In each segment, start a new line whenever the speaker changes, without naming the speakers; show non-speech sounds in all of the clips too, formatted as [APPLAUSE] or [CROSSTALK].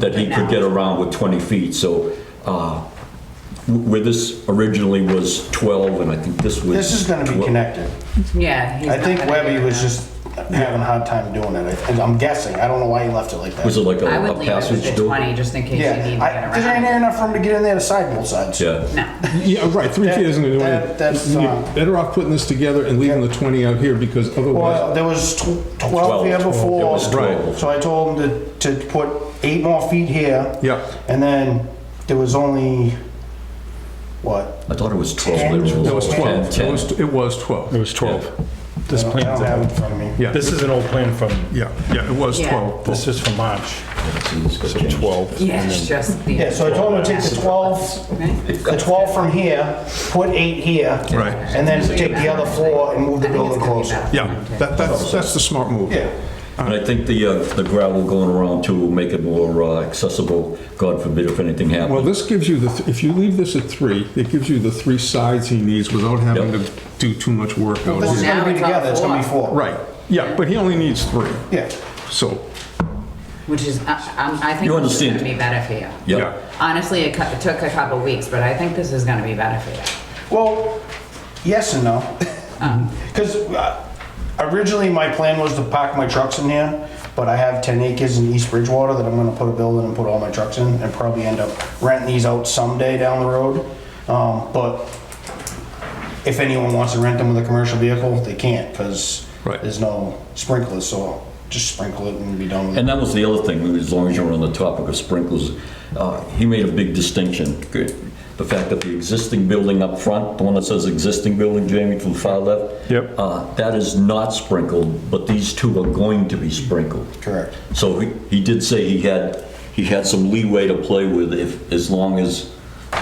that he could get around with 20 feet, so uh, w- where this originally was 12, and I think this was...
This is gonna be
12
connected.
Yeah. he's
I think
not gonna
Webby
do
was
that.
just having a hard time doing it. I- I'm guessing. I don't know why he left it like that.
Was it like a
I would
a
leave it with
passage
the
door?
twenty, just in case you
Yeah,
need to
I-
get
cause there ain't air
around.
enough for him to get in there to side both sides.
Yeah,
No,
Yeah, right, three feet isn't gonna do
That- that- that's,
anything.
uh,
You're better off putting this together and leaving the 20 out here, because
Well,
otherwise,
there was tw- twelve
12,
here
it
before.
was
Right.
12.
So I told him to, to put eight more feet here.
Yeah.
And then there was only, what?
I thought it was 12.
Ten.
there
that was 12.
10,
It was, it was 12.
It was 12. This
I don't have it in
plan,
front of me.
Yeah,
this is an old plan from,
yeah, yeah, it was
Yeah.
12.
this is from March,
10.
twelve.
yeah, it's just the.
Yeah, so
[LAUGHS]
I told him to take the twelve, the twelve from here, put eight here.
Right.
And then take the other floor and move the building closer.
Yeah, that, that's, that's the smart move.
Yeah.
And I think the uh, the gravel going around too will make it more uh, accessible, God forbid if anything
Well,
happens.
this gives you the, th- if you leave this at three, it gives you the three sides he needs without having
Yep.
to do too much work out
This is
here.
now
gonna be
it's all
together, it's gonna be
four.
four.
Right, yeah, but he only needs three,
Yeah.
so,
Which is, I, I'm- I think
You
this is
understand.
gonna be better for you.
Yeah.
yeah.
Honestly, it cou- it took a couple weeks, but I think this is gonna be better for you.
Well, yes and no.
Uh-huh.
[LAUGHS] Because originally, my plan was to park my trucks in here, but I have 10 acres in East Bridgewater that I'm gonna put a building and put all my trucks in, and probably end up renting these out someday down the road. Um, But if anyone wants to rent them with a commercial vehicle, they can't, because
Right.
there's no sprinklers, so I'll just sprinkle it and be done with it.
And that was the other thing, as long as you're on the topic of sprinklers, uh, he made a big distinction. Good. The fact that the existing building up front, the one that says existing building, Jamie, from the far left.
Yep.
uh, That is not sprinkled, but these two are going to be sprinkled.
Correct.
So he he did say he had, he had some leeway to play with if, as long as,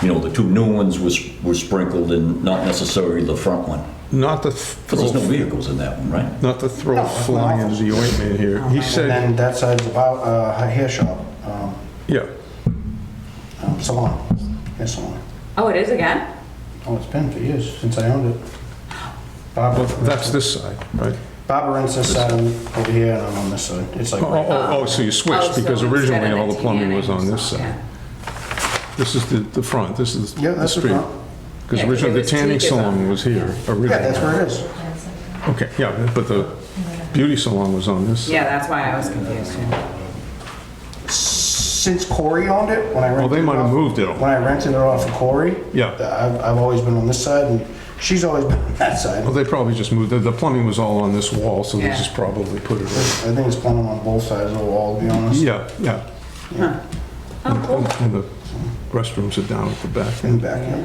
you know, the two new ones was were sprinkled and not necessarily the front one.
Not to
Because there's no
throw,
vehicles in that one, right?
not to throw
it's
fly
not.
into the ointment here. He
And
said,
then that side's about uh, a hair shop, um,
yeah,
um, salon, hair salon.
Oh, it is again?
Oh, it's been for years since I owned it. Barbara,
well, that's this side, right?
Barbara rents this side and over here, and I'm on this side. It's like,
Oh, oh, oh, oh, so you
Oh,
switched,
so
because
instead
originally
of
all the plumbing was on
TNA,
this
so,
side.
yeah.
This is the, the front, this is
Yeah,
oh. the
that's the
street.
front.
Because
Yeah, 'cause
originally
it
the
was
tanning
teak as
salon
well.
was here, originally.
yeah, that's where it is.
Okay, yeah, but the beauty salon was on this.
Yeah, that's why I was confused too.
Since Corey owned it, when I rented
Well, they might
it
have
off-
moved it.
When I rented it off of Corey, uh,
Yeah.
I've, I've always been on this side, and she's always [LAUGHS] been on that side.
Well, they probably just moved, the- the plumbing was all on this wall, so they
Yeah.
just probably put it over.
I think it's plumbing on both sides of the wall, to be honest.
Yeah, yeah.
Oh, cool.
And the restrooms are down at the back,
In the back, yeah.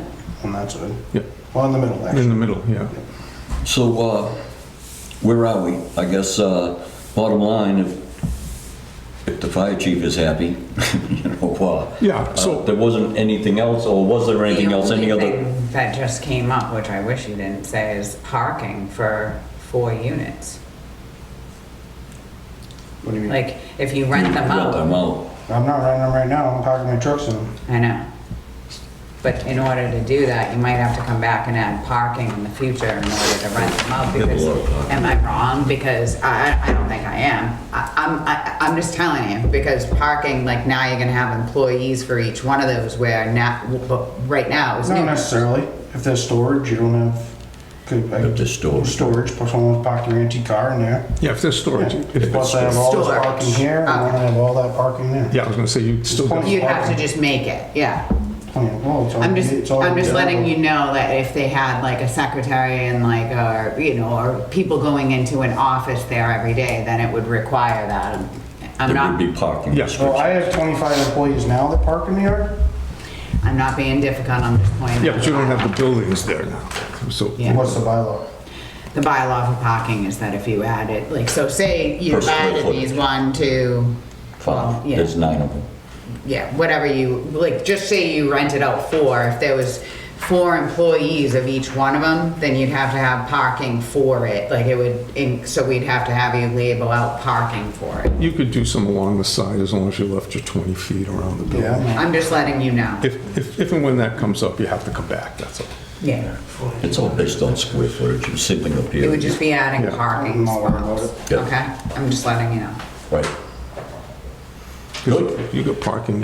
On that side.
yeah,
Well, in the middle,
in
actually.
the middle, yeah.
So, uh, where are we? I guess, uh, bottom line, if, if the fire chief is happy, [LAUGHS] you know, uh,
Yeah,
uh,
so-
there wasn't anything else, or was there anything else, any
The
other?
only thing that just came up, which I wish you didn't say, is parking for four units.
What do you mean?
Like, if you rent them
Well, I'm out.
out,
I'm not renting them right now. I'm parking my trucks in them.
I know. But in order to do that, you might have to come back and add parking in the future in order to rent them out,
Yeah, but
because,
a lot of parking.
am I wrong? Because I, I don't think I am. I, I'm, I, I'm just telling you, because parking, like, now you're gonna have employees for each one of those, where now, but right now, it's
Not
new.
necessarily. If there's storage, you don't have, could, I.
If there's storage.
Storage, plus someone's parked their antique car in there.
Yeah, if there's storage, if
Plus
it's,
I have all this
Storage.
parking here, and
Ah.
then I have all that parking there.
yeah, I was gonna say, you still got,
Well,
You have to just make it, yeah.
Plenty of- well, it's all-
I'm just,
it's all-
I'm just letting you know that if they had like a secretary and like, or, you know, or people going into an office there every day, then it would require that. I'm
There would
not,
be parking
Yeah.
So I
restrictions.
have 25 employees now that park in the yard.
I'm not being difficult, I'm just pointing.
yeah,
out
but you don't
the
have the buildings there now, so.
Yeah.
What's the bylaw?
bylaw. The bylaw for parking is that if you added, like, so say you
Per square
added
foot.
these one, two,
Five,
um, yeah.
there's nine of them.
yeah, whatever you, like, just say you rented out four, if there was four employees of each one of them, then you'd have to have parking for it, like, it would, in- so we'd have to have you label out parking for it.
You could do some along the side as long as you left your 20 feet around the building.
Yeah.
I'm just letting you know.
If, if, if and when that comes up, you have to come back, that's all.
Yeah,
It's all based on square footage, you're sitting up
it would
here,
just be adding
Yeah.
parking
I'm not worried about
it.
spots.
Yeah.
Okay, I'm just letting you know.
right?
'Cause You got parking